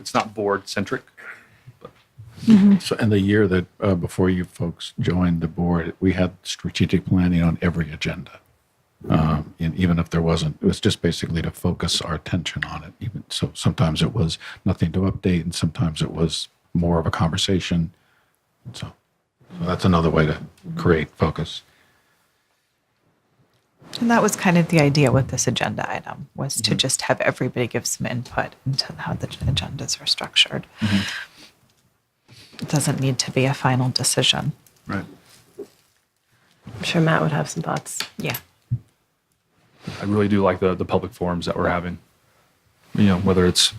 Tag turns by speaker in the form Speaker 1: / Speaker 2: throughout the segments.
Speaker 1: it's not board centric.
Speaker 2: So, and the year that uh, before you folks joined the board, we had strategic planning on every agenda. Um, and even if there wasn't, it was just basically to focus our attention on it. Even so, sometimes it was nothing to update, and sometimes it was more of a conversation. So, so that's another way to create focus.
Speaker 3: And that was kind of the idea with this agenda item was
Speaker 2: Mm-hmm.
Speaker 3: to just have everybody give some input into how the agendas are structured.
Speaker 2: Mm-hmm.
Speaker 3: It doesn't need to be a final decision.
Speaker 2: Right.
Speaker 4: I'm sure Matt would have some thoughts.
Speaker 3: Yeah.
Speaker 1: I really do like the the public forums that we're having. You know, whether it's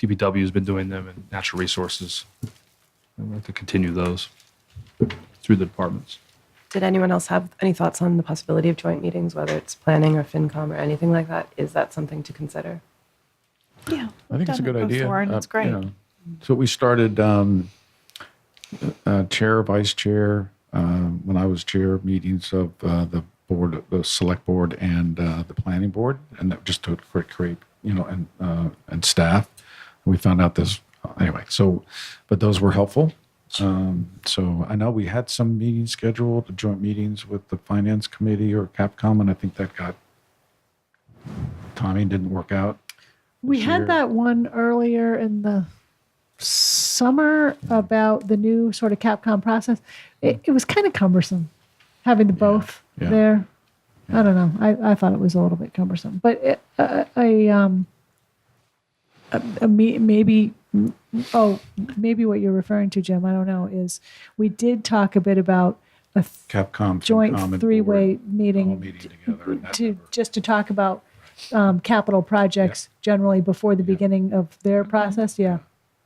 Speaker 1: DPW has been doing them and natural resources. I'd like to continue those through the departments.
Speaker 4: Did anyone else have any thoughts on the possibility of joint meetings, whether it's planning or FinCom or anything like that? Is that something to consider?
Speaker 3: Yeah.
Speaker 2: I think it's a
Speaker 3: Done it
Speaker 2: good idea.
Speaker 3: before and
Speaker 2: Uh,
Speaker 3: it's great.
Speaker 2: yeah. So we started um, uh, chair, vice chair, um, when I was chair, meetings of uh, the board, the select board, and uh, the planning board, and that just to cre- create, you know, and uh, and staff. We found out this anyway. So, but those were helpful. Um, so I know we had some meetings scheduled, joint meetings with the finance committee or Capcom, and I think that got timing didn't work out.
Speaker 5: We
Speaker 2: this year.
Speaker 5: had that one earlier in the summer about the new sort of Capcom process. It, it was kind of cumbersome having the both
Speaker 2: yeah.
Speaker 5: there. I don't know. I, I thought it was a little bit cumbersome, but it, uh, I um, a, a me, maybe oh maybe what you're referring to, Jim. I don't know. Is we did talk a bit about a th-
Speaker 2: Capcom FinCom, and
Speaker 5: joint
Speaker 2: board
Speaker 5: three-way meeting.
Speaker 2: all meeting together. and that
Speaker 5: to,
Speaker 2: never-
Speaker 5: just to talk about um, capital projects generally before the beginning of their process, yeah,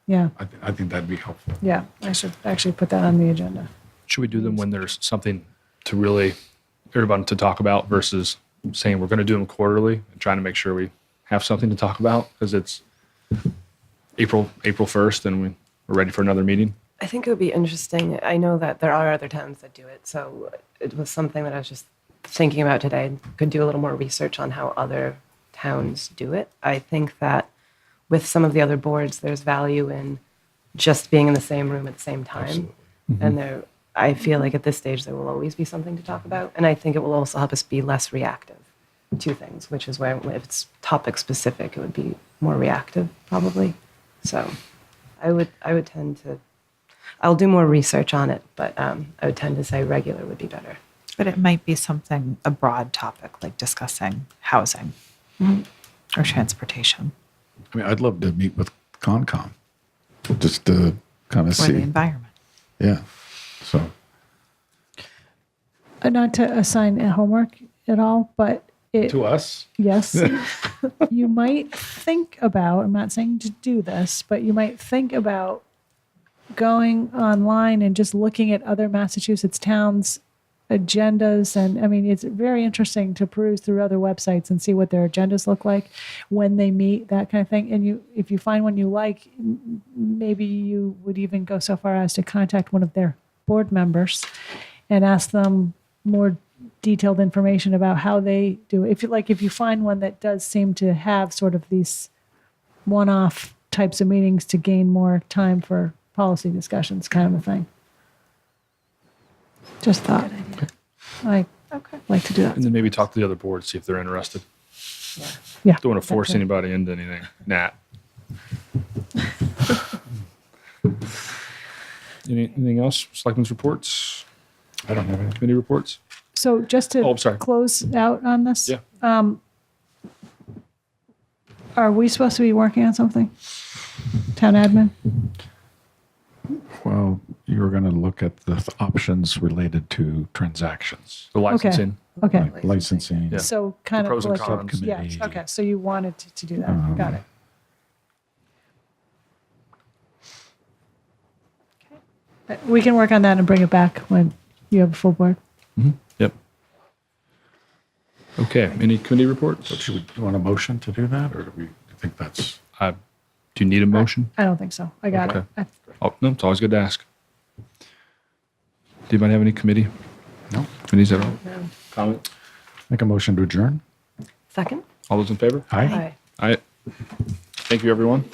Speaker 5: yeah,
Speaker 2: I, th- I think that'd be helpful.
Speaker 5: yeah. I should actually put that on the agenda.
Speaker 1: Should we do them when there's something to really everybody to talk about versus saying we're going to do them quarterly and trying to make sure we have something to talk about because it's April April first and we, we're ready for another meeting.
Speaker 4: I think it would be interesting. I know that there are other towns that do it, so it was something that I was just thinking about today. Could do a little more research on how other towns do it. I think that with some of the other boards, there's value in just being in the same room at the same time. And there, I feel like at this stage there will always be something to talk about, and I think it will also help us be less reactive to things, which is where if it's topic specific, it would be more reactive probably. So, I would I would tend to I'll do more research on it, but um, I would tend to say regular would be better.
Speaker 3: But it might be something, a broad topic like discussing housing
Speaker 2: Mm-hmm.
Speaker 3: or transportation
Speaker 2: I mean, I'd love to meet with Concom, just to kind of
Speaker 3: or
Speaker 2: see.
Speaker 3: the environment.
Speaker 2: Yeah. So
Speaker 5: Uh, Not to assign a homework at all, but it,
Speaker 2: us,
Speaker 5: yes, you might think about, I'm not saying to do this, but you might think about going online and just looking at other Massachusetts towns' agendas. And I mean, it's very interesting to peruse through other websites and see what their agendas look like, when they meet, that kind of thing. And you, if you find one you like, m- maybe you would even go so far as to contact one of their board members and ask them more detailed information about how they do. If you like, if you find one that does seem to have sort of these one-off types of meetings to gain more time for policy discussions, kind of a thing. Just thought. I okay. like to do that.
Speaker 1: And then maybe talk to the other board, see if they're interested.
Speaker 5: Yeah.
Speaker 1: Don't want to force
Speaker 5: Okay.
Speaker 1: anybody into anything. Nat. Any, anything else? Selectmen's reports,
Speaker 2: I don't have any.
Speaker 1: committee reports.
Speaker 5: So just to
Speaker 1: Oh, I'm sorry.
Speaker 5: close out on this,
Speaker 1: Yeah.
Speaker 5: are we supposed to be working on something? Town admin?
Speaker 2: Well, you were going to look at the th- options related to transactions,
Speaker 1: The
Speaker 5: Okay.
Speaker 1: licensing.
Speaker 5: Okay.
Speaker 2: like licensing.
Speaker 1: Yeah.
Speaker 5: So kind of
Speaker 1: pros and
Speaker 5: like a-
Speaker 1: cons.
Speaker 5: Yeah.
Speaker 2: Subcommittee.
Speaker 5: Okay. So you wanted to, to do that.
Speaker 2: Um,
Speaker 5: Got it. Uh, We can work on that and bring it back when you have a full board.
Speaker 1: Yep. Okay. Any committee reports?
Speaker 2: Should we do you want a motion to do that, or do we think that's?
Speaker 1: I, do you need a motion?
Speaker 5: I don't think so. I got it.
Speaker 1: Okay.
Speaker 5: I-
Speaker 1: Oh, no, it's always good to ask. Do you mind having any committee?
Speaker 2: No.
Speaker 1: Committees at all? No. Comment?
Speaker 2: Make a motion to adjourn?
Speaker 4: Second?
Speaker 1: All those in favor?
Speaker 2: Aye.
Speaker 4: Aye.
Speaker 1: Aye. Thank you, everyone.